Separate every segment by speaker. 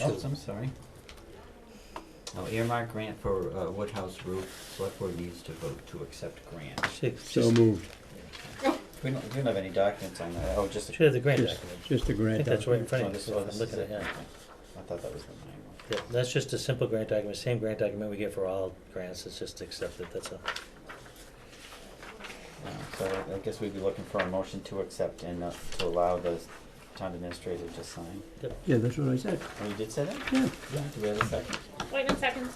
Speaker 1: Oh,
Speaker 2: Oops,
Speaker 3: two.
Speaker 2: I'm sorry.
Speaker 3: Now earmark grant for uh, Woodhouse roof, select board needs to vote to accept grant.
Speaker 1: Six,
Speaker 4: So
Speaker 1: just,
Speaker 4: moved.
Speaker 3: We don't, we don't have any documents on that, oh, just.
Speaker 1: should have the grant
Speaker 4: Just,
Speaker 1: document.
Speaker 4: just a
Speaker 1: I
Speaker 4: grant
Speaker 1: think that's right in
Speaker 4: document.
Speaker 1: front
Speaker 3: Oh,
Speaker 1: of
Speaker 3: this-
Speaker 1: you,
Speaker 3: oh,
Speaker 1: if
Speaker 3: this
Speaker 1: I'm
Speaker 3: is
Speaker 1: looking at
Speaker 3: it.
Speaker 1: it.
Speaker 3: Okay. I thought that was the nine one.
Speaker 1: Yeah, That's just a simple grant document, same grant document we get for all grants, it's just accepted, that's all.
Speaker 3: Uh, So I- I guess we'd be looking for a motion to accept and uh, to allow the town administrator to sign.
Speaker 4: Yeah, that's what I said,
Speaker 3: Oh, you did say that?
Speaker 4: yeah.
Speaker 3: Yeah. Do we have a second?
Speaker 5: Whitman seconds.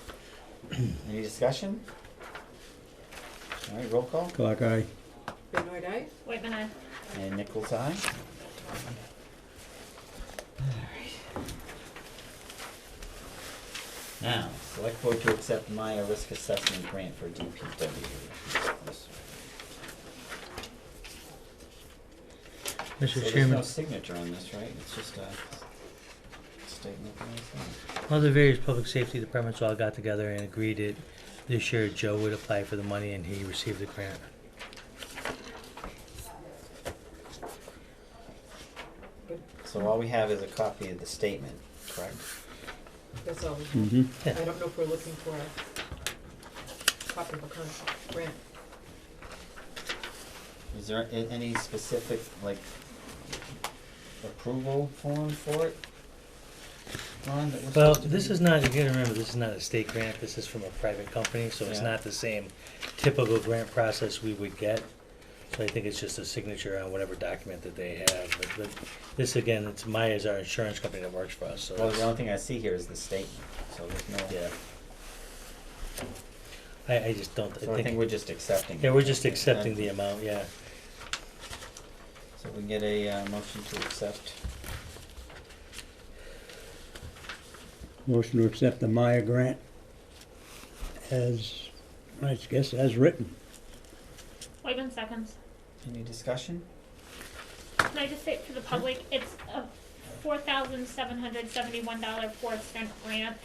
Speaker 3: Any discussion? All right, roll call.
Speaker 4: Clock eye.
Speaker 6: Benoit Eye?
Speaker 5: Whitman aye.
Speaker 3: And Nichols, aye. Now, select board to accept Maya risk assessment grant for DPW. This- So
Speaker 1: Mr.
Speaker 3: there's no
Speaker 1: Chairman,
Speaker 3: signature on this, right? It's just a statement. from us?
Speaker 1: all the various public safety departments all got together and agreed that this year Joe would apply for the money and he received the grant.
Speaker 3: So all we have is a copy of the statement, correct?
Speaker 6: That's all. we have.
Speaker 4: Mm-hmm.
Speaker 6: I don't know if we're looking for a copy of a contract, grant.
Speaker 3: Is there a- any specific, like, approval form for it? Ron, that we're
Speaker 1: Well,
Speaker 3: supposed to
Speaker 1: this
Speaker 3: be-
Speaker 1: is not, you gotta remember, this is not a state grant, this is from a private company, so it's
Speaker 3: Yeah.
Speaker 1: not the same typical grant process we would get. So I think it's just a signature on whatever document that they have, but, but this again, it's Maya's our insurance company that works for us, so.
Speaker 3: Well,
Speaker 1: it's-
Speaker 3: the only thing I see here is the statement, so there's no.
Speaker 1: Yeah. I, I just don't,
Speaker 3: So I think we're just accepting.
Speaker 1: yeah,
Speaker 3: it.
Speaker 1: we're just accepting
Speaker 3: Okay.
Speaker 1: the amount, yeah.
Speaker 3: So we can get a, uh, motion to accept.
Speaker 4: Motion to accept the Maya grant as, I guess, as written.
Speaker 5: Whitman seconds.
Speaker 3: Any discussion?
Speaker 5: Can I just say for the public, it's a four thousand seven hundred seventy-one dollar four cent grant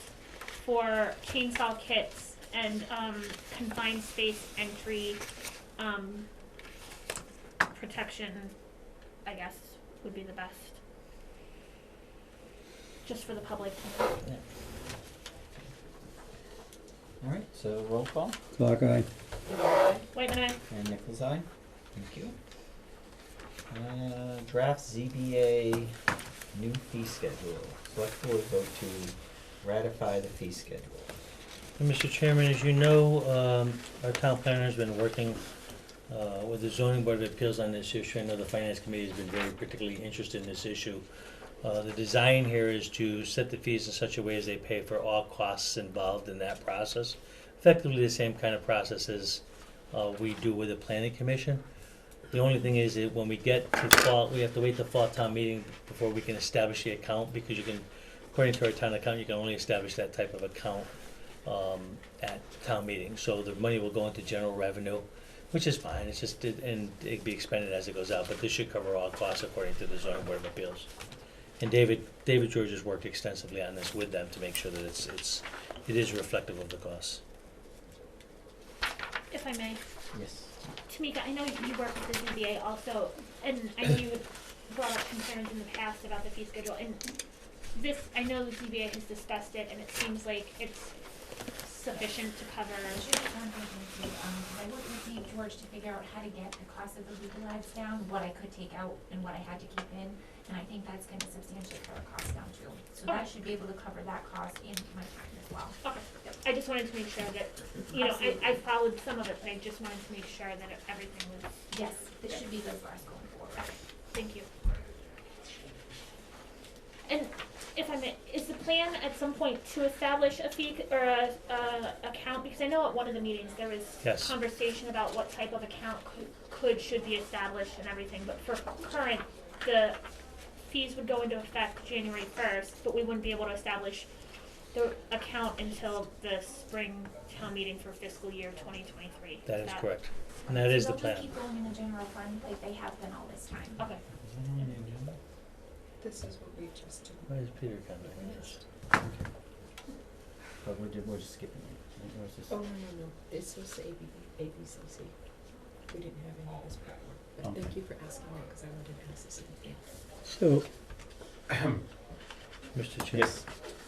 Speaker 5: for chainsaw kits and, um, confined space entry, um, protection, I guess, would be the best. Just for the public.
Speaker 3: All right, so roll call,
Speaker 4: Clock eye.
Speaker 6: Benoit Eye?
Speaker 5: Whitman aye.
Speaker 3: and Nichols eye. Thank you. Uh, draft ZBA new fee schedule. Select board vote to ratify the fee schedule.
Speaker 1: And Mr. Chairman, as you know, um, our town planner's been working, uh, with the zoning board of appeals on this issue. I know the finance committee has been very particularly interested in this issue. Uh, the design here is to set the fees in such a way as they pay for all costs involved in that process. Effectively the same kind of process as, uh, we do with the planning commission. The only thing is that when we get to fall, we have to wait the fall town meeting before we can establish the account, because you can, according to our town account, you can only establish that type of account um, at town meeting. So the money will go into general revenue, which is fine, it's just, it- and it'd be expended as it goes out, but this should cover all costs according to the zoning board of appeals. And David, David George has worked extensively on this with them to make sure that it's, it's, it is reflective of the costs.
Speaker 5: If I may,
Speaker 3: Yes.
Speaker 5: Tamika, I know you work with the ZBA also, and I know you had brought up concerns in the past about the fee schedule, and this, I know the ZBA has discussed it, and it seems like it's sufficient to cover.
Speaker 7: I should have gone back and see, um, 'cause I worked with Dave George to figure out how to get the cost of the legal ads down, what I could take out and what I had to keep in. And I think that's gonna substantiate our cost down too. So that
Speaker 5: Okay.
Speaker 7: should be able to cover that cost and my time as well.
Speaker 5: Okay, I just wanted to make sure that, you know, I, I followed some of it, but I just wanted to make sure that everything was,
Speaker 7: Yes, this should be good for us going forward.
Speaker 5: thank you. And if I may, is the plan at some point to establish a fee c- or a, a account, because I know at one of the meetings there was
Speaker 1: Yes.
Speaker 5: conversation about what type of account could, could, should be established and everything, but for current, the fees would go into effect January first, but we wouldn't be able to establish the account until the spring town meeting for fiscal year twenty twenty-three.
Speaker 1: That is correct, and that is the
Speaker 7: So
Speaker 1: plan.
Speaker 7: they'll just keep going in the general fund like they have been all this time.
Speaker 5: Okay,
Speaker 6: This is what we just did.
Speaker 1: Why is Peter coming?
Speaker 3: But we're, ju- we're just skipping it. It was just-
Speaker 6: Oh, no, no, no, it's just ABB, ABCC. We didn't have any of this before, but
Speaker 3: Okay.
Speaker 6: thank you for asking that, because I wanted to ask this.
Speaker 4: So,
Speaker 1: Mr. Chair,
Speaker 3: Yes.